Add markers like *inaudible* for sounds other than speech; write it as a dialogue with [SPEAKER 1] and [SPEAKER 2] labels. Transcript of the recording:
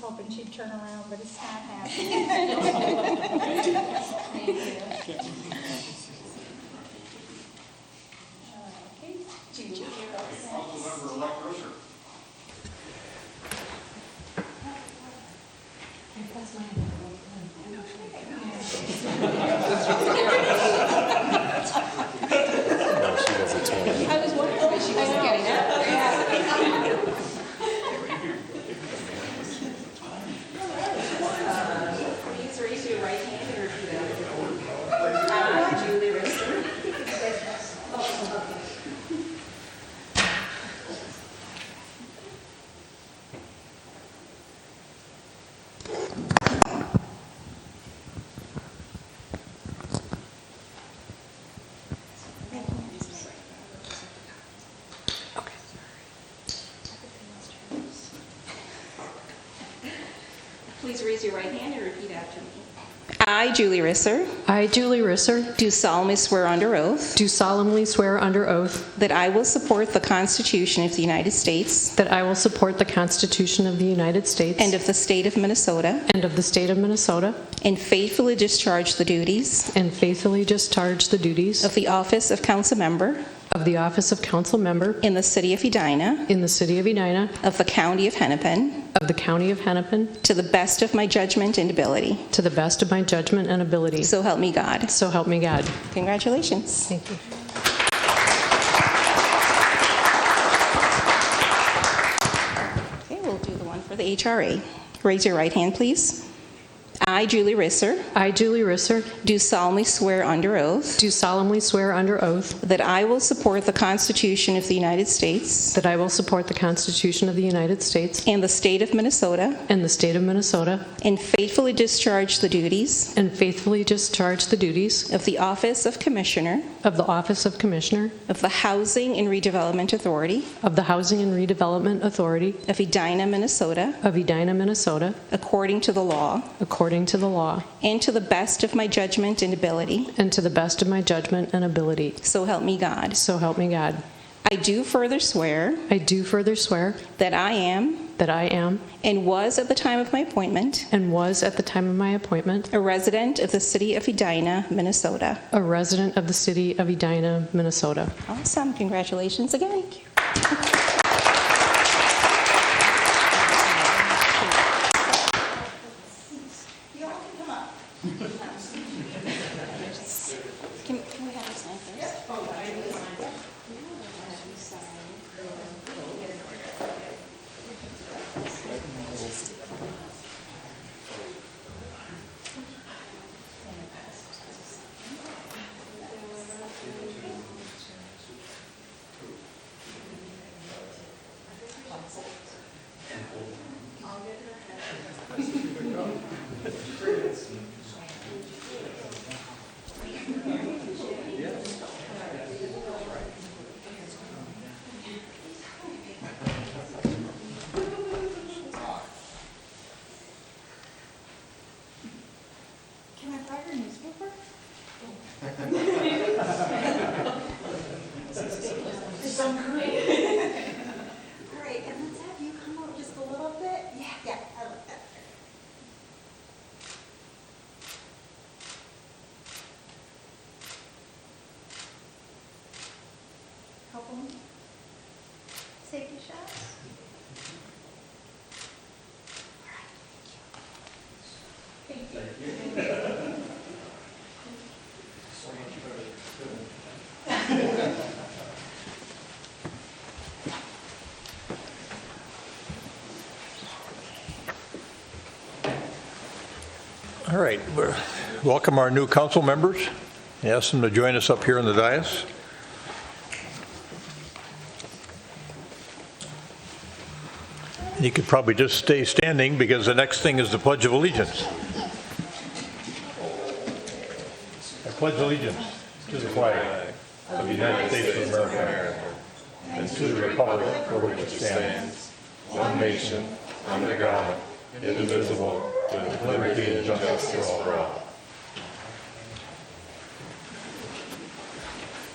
[SPEAKER 1] hoping she'd turn around, but it's not happening. *laughs*
[SPEAKER 2] Thank you. Okay, Judy, you're all set.
[SPEAKER 3] Councilmember-elect Risser.
[SPEAKER 4] No, she wasn't twenty.
[SPEAKER 2] I was wondering if she wasn't getting up. Please raise your right hand and repeat after me. I, Julie Risser. Please raise your right hand and repeat after me. I, Julie Risser,
[SPEAKER 5] I, Julie Risser,
[SPEAKER 2] do solemnly swear under oath
[SPEAKER 5] do solemnly swear under oath
[SPEAKER 2] that I will support the Constitution of the United States
[SPEAKER 5] that I will support the Constitution of the United States
[SPEAKER 2] and of the state of Minnesota
[SPEAKER 5] and of the state of Minnesota,
[SPEAKER 2] and faithfully discharge the duties
[SPEAKER 5] and faithfully discharge the duties
[SPEAKER 2] of the office of council member
[SPEAKER 5] of the office of council member
[SPEAKER 2] in the city of Edina
[SPEAKER 5] in the city of Edina,
[SPEAKER 2] of the county of Hennepin
[SPEAKER 5] of the county of Hennepin,
[SPEAKER 2] to the best of my judgment and ability.
[SPEAKER 5] to the best of my judgment and ability.
[SPEAKER 2] So help me God.
[SPEAKER 5] So help me God.
[SPEAKER 2] Congratulations.
[SPEAKER 5] Thank you.
[SPEAKER 2] Okay, we'll do the one for the HRA. Raise your right hand, please. I, Julie Risser,
[SPEAKER 5] I, Julie Risser,
[SPEAKER 2] do solemnly swear under oath
[SPEAKER 5] do solemnly swear under oath
[SPEAKER 2] that I will support the Constitution of the United States
[SPEAKER 5] that I will support the Constitution of the United States
[SPEAKER 2] and the state of Minnesota
[SPEAKER 5] and the state of Minnesota,
[SPEAKER 2] and faithfully discharge the duties
[SPEAKER 5] and faithfully discharge the duties
[SPEAKER 2] of the Office of Commissioner
[SPEAKER 5] of the office of Commissioner
[SPEAKER 2] of the Housing and Redevelopment Authority
[SPEAKER 5] of the Housing and Redevelopment Authority
[SPEAKER 2] of Edina, Minnesota,
[SPEAKER 5] of Edina, Minnesota,
[SPEAKER 2] according to the law
[SPEAKER 5] according to the law,
[SPEAKER 2] and to the best of my judgment and ability.
[SPEAKER 5] and to the best of my judgment and ability.
[SPEAKER 2] So help me God.
[SPEAKER 5] So help me God.
[SPEAKER 2] I do further swear
[SPEAKER 5] I do further swear
[SPEAKER 2] that I am
[SPEAKER 5] that I am,
[SPEAKER 2] and was at the time of my appointment
[SPEAKER 5] and was at the time of my appointment,
[SPEAKER 2] a resident of the city of Edina, Minnesota.
[SPEAKER 5] a resident of the city of Edina, Minnesota.
[SPEAKER 2] Awesome. Congratulations again.
[SPEAKER 3] You all can come up.
[SPEAKER 2] *laughs* Can, can we have a sign first?
[SPEAKER 3] Can I buy your newspaper? Great, and let's have you come up just a little bit. Yeah, yeah, I like that. Help him. Take your shots.
[SPEAKER 6] All right, we're- welcome our new council members. Ask them to join us up here in the dais. You could probably just stay standing because the next thing is the Pledge of Allegiance. I pledge allegiance to the flag of the United States of America and to the republic for which it stands, one nation, under God, indivisible, with liberty and justice for all.